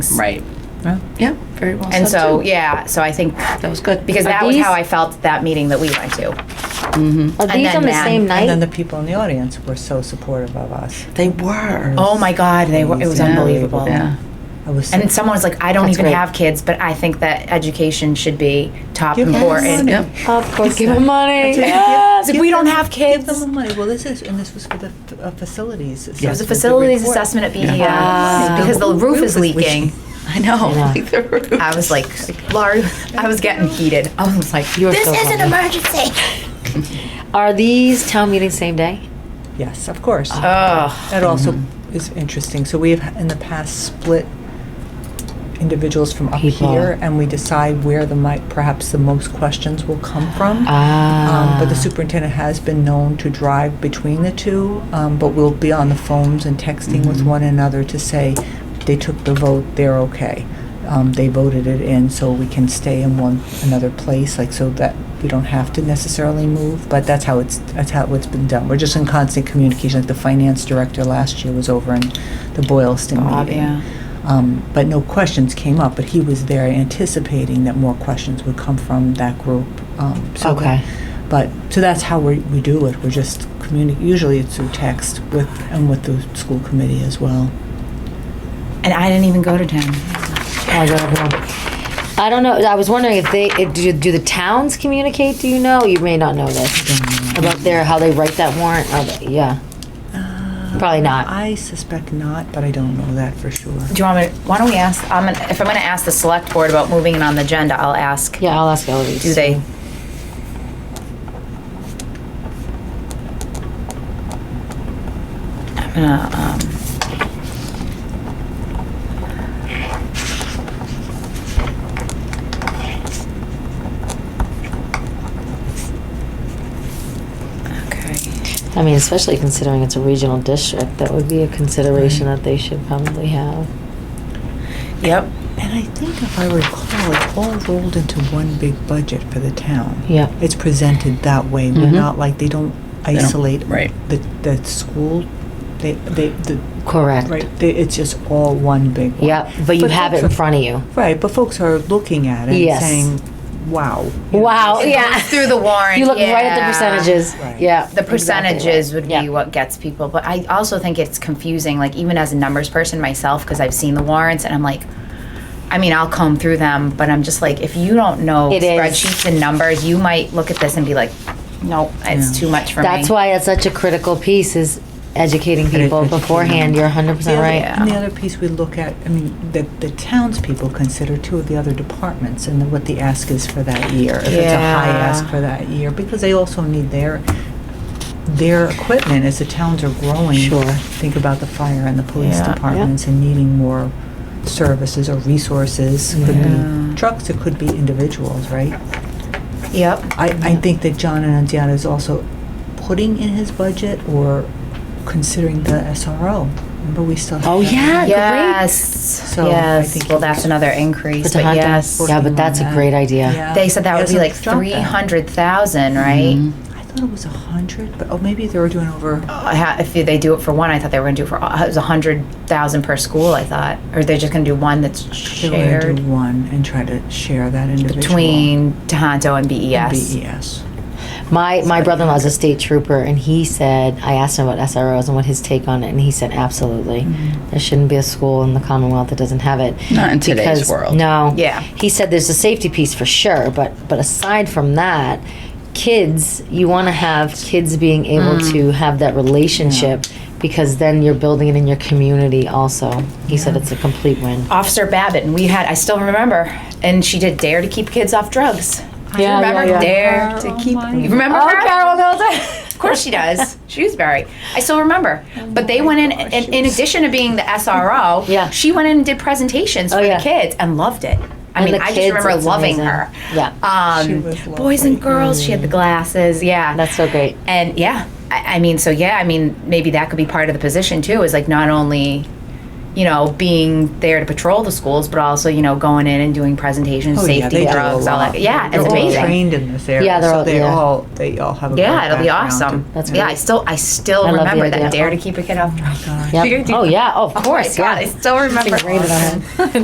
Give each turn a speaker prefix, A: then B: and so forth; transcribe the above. A: Right.
B: Yeah, very well
A: And
B: said,
A: so,
B: too.
A: yeah, so I think,
B: That was good.
A: because
C: Are
A: that was
C: these-
A: how I felt that meeting that we went to.
C: Are
A: And
C: these
A: then
C: on the
A: Nan.
C: same
A: And
D: And then the
C: night?
D: people in the audience were so supportive of us.
B: They were.
A: Oh my God, they were, it was
D: Yeah.
A: unbelievable.
B: Yeah.
D: I was so-
A: And someone was like, I don't
C: That's
A: even
C: great.
A: have kids, but I think that education should be top
D: Give them
A: important.
D: money.
B: Yep.
C: Of course, give them money.
A: Yes, if
D: Give
A: we don't
D: them-
A: have
D: Give them
A: kids.
D: the money. Well, this is, and this was for the f- uh, facilities.
A: It was a
D: assessment to
A: facilities
D: report.
A: assessment at BEI
C: Yeah.
A: because the roof is
D: Roof is
A: leaking.
B: I know.
C: Yeah.
B: Like the roof.
A: I was like, Laurie, I was getting heated. I was like,
C: You are
A: this
C: so
A: is an
C: funny.
A: emergency.
C: Are these town meetings same day?
D: Yes, of course.
A: Oh,
D: That also is interesting. So we have in the past split individuals from up
C: People.
D: here, and we decide where the might perhaps the most questions will come from. Um, but the
A: Ah.
D: superintendent has been known to drive between the two, um, but we'll be on the phones and texting with
A: Mm-hmm.
D: one another to say they took the vote, they're okay. Um, they voted it in, so we can stay in one another place, like so that we don't have to necessarily move. But that's how it's that's how it's been done. We're just in constant communication. Like the finance director last year was over in the Boylston
A: Bob,
D: meeting.
A: yeah.
D: Um, but no questions came up, but he was there anticipating that more questions would come from that group. Um, so that-
C: Okay.
D: but, so that's how we, we do it. We're just communi, usually it's through text with, and with the school committee as well.
A: and I didn't even go to town.
C: I don't know. I don't know. I was wondering if they if, do. Do the towns communicate? Do you know? You may not know this about their how they write that warrant. Are they- yeah, probably
A: Uh,
C: not.
D: I suspect not, but I don't know that for sure.
A: Do you want me? To, why don't we ask? I'm gonna, if I'm going to ask the select board about moving it on the agenda, I'll ask.
C: Yeah, I'll ask Eloise.
A: Do they? I'm gonna. Um, okay.
C: I mean, especially considering it's a regional district, that would be a consideration that they should probably have.
A: Yep.
D: And I think if I recall, it's all rolled into one big budget for the town.
C: Yeah.
D: It's presented that way. We're
C: Mhm.
D: not like, they don't
B: don't-
D: isolate.
B: right.
D: The, the school, they, they, the,
C: Correct.
D: right, they, it's just all one big one.
C: Yeah, but you have it in
D: folks are-
C: front of you.
D: Right, but folks are looking at it
C: Yes.
D: and saying, wow. you know,
C: Wow.
A: Goes
C: Yeah.
A: Through the warrant.
C: You look right at the
A: yeah.
C: percentages.
D: Right.
C: Yeah.
A: the percentages would be
C: Yeah.
A: what gets people but i also think it's confusing like even as a numbers person myself because i've seen the warrants and i'm like i mean i'll comb through them but i'm just like if you don't know
C: It is.
A: spreadsheets and numbers you might look at this and be like nope it's too much for
C: That's
A: me
C: why it's such a critical piece is educating
D: Edu-
C: people
D: educating
C: beforehand.
D: them.
C: You're 100
D: The
C: percent
D: other-
C: right.
D: And the other piece we look at, I mean, the, the townspeople consider two of the other departments and what the ask is for that year. If it's a high
A: Yeah.
D: ask for that year, because they also need their, their equipment as the towns are growing.
C: Sure.
D: Think about the fire and the police
A: Yeah. Yeah.
D: departments and needing more services or resources. Could be trucks, it could be individuals, right?
A: yep
D: I, I think that John Annunziata is also putting in his budget or considering the SRO. Remember, we still.
C: Oh
D: have-
C: yeah,
A: yes
D: So, I
A: yes
D: think
A: well
D: it-
A: that's another
C: great.
A: increase
C: Put the
A: but
C: hot
A: yes
C: dogs. Yeah, but that's a great idea.
D: Yeah.
A: they said that would be
D: Hasn't
A: like
D: dropped that.
A: 300000 right
C: Mm-hmm.
D: I thought it was a hundred, but, oh, maybe they were doing over,
A: I ha- if they do it for one, I thought they were going to do it for all- it was a hundred thousand per school. I thought, or they're just going to do one that's
D: they were gonna do
A: shared
D: one and try to share that individual. E
A: between Tohoto and E BES.
D: BES.
C: My my brother in law's a state trooper, and he said I asked him about SROs and what his take on it, and he said absolutely, there shouldn't be a school in the Commonwealth that doesn't have it.
B: Mm-hmm. Not in today's
C: Because-
B: world.
C: No.
A: Yeah.
C: He said there's a safety piece for sure, but but aside from that, kids, you want to have kids being able to have that relationship. Because then you're building it in your community also. He said it's a complete win.
A: Officer Babbitt, and we had, I still remember, and she did Dare to Keep Kids Off Drugs. Do you
C: Yeah,
A: remember
C: yeah, yeah.
A: Dare to
D: Oh
A: Keep?
D: my-
A: You remember
C: Oh,
A: her?
C: Carol
A: Of course she does. Shrewsbury. I still remember.
D: Oh
A: But they went in, in, in addition to being the SRO,
C: Yeah.
A: she went in and did presentations for
C: Oh, yeah.
A: the kids and loved it. I
C: And
A: mean,
C: the
A: I just
C: kids,
A: remember
C: it's
A: loving
C: amazing.
A: her.
C: Yeah.
A: Um,
D: She was
A: boys
D: lovely.
A: and girls, she had the glasses. Yeah.
C: That's so great.
A: And yeah, I, I mean, so yeah, I mean, maybe that could be part of the position too. Is like not only, you know, being there to patrol the schools, but also you know going in and doing presentations,
D: Oh, yeah,
A: safety,
D: they do a
A: drugs, all
D: lot.
A: that. Yeah,
D: They're
A: it's
D: all
A: amazing.
D: Trained in this area.
C: Yeah, they're
D: so
C: all- yeah.
D: all, they all have a great
A: Yeah, it'll be
D: background
A: awesome.
D: and-
C: That's
A: yeah,
C: great.
A: I still I still
C: I love the
A: remember that
C: idea.
A: dare to keep a kid off drugs.
C: Yep.
A: You're gonna do
C: Oh
A: that?
C: yeah, oh, of
A: Oh my
C: course,
A: God, I
C: yeah.
A: still remember.
C: Rated on him.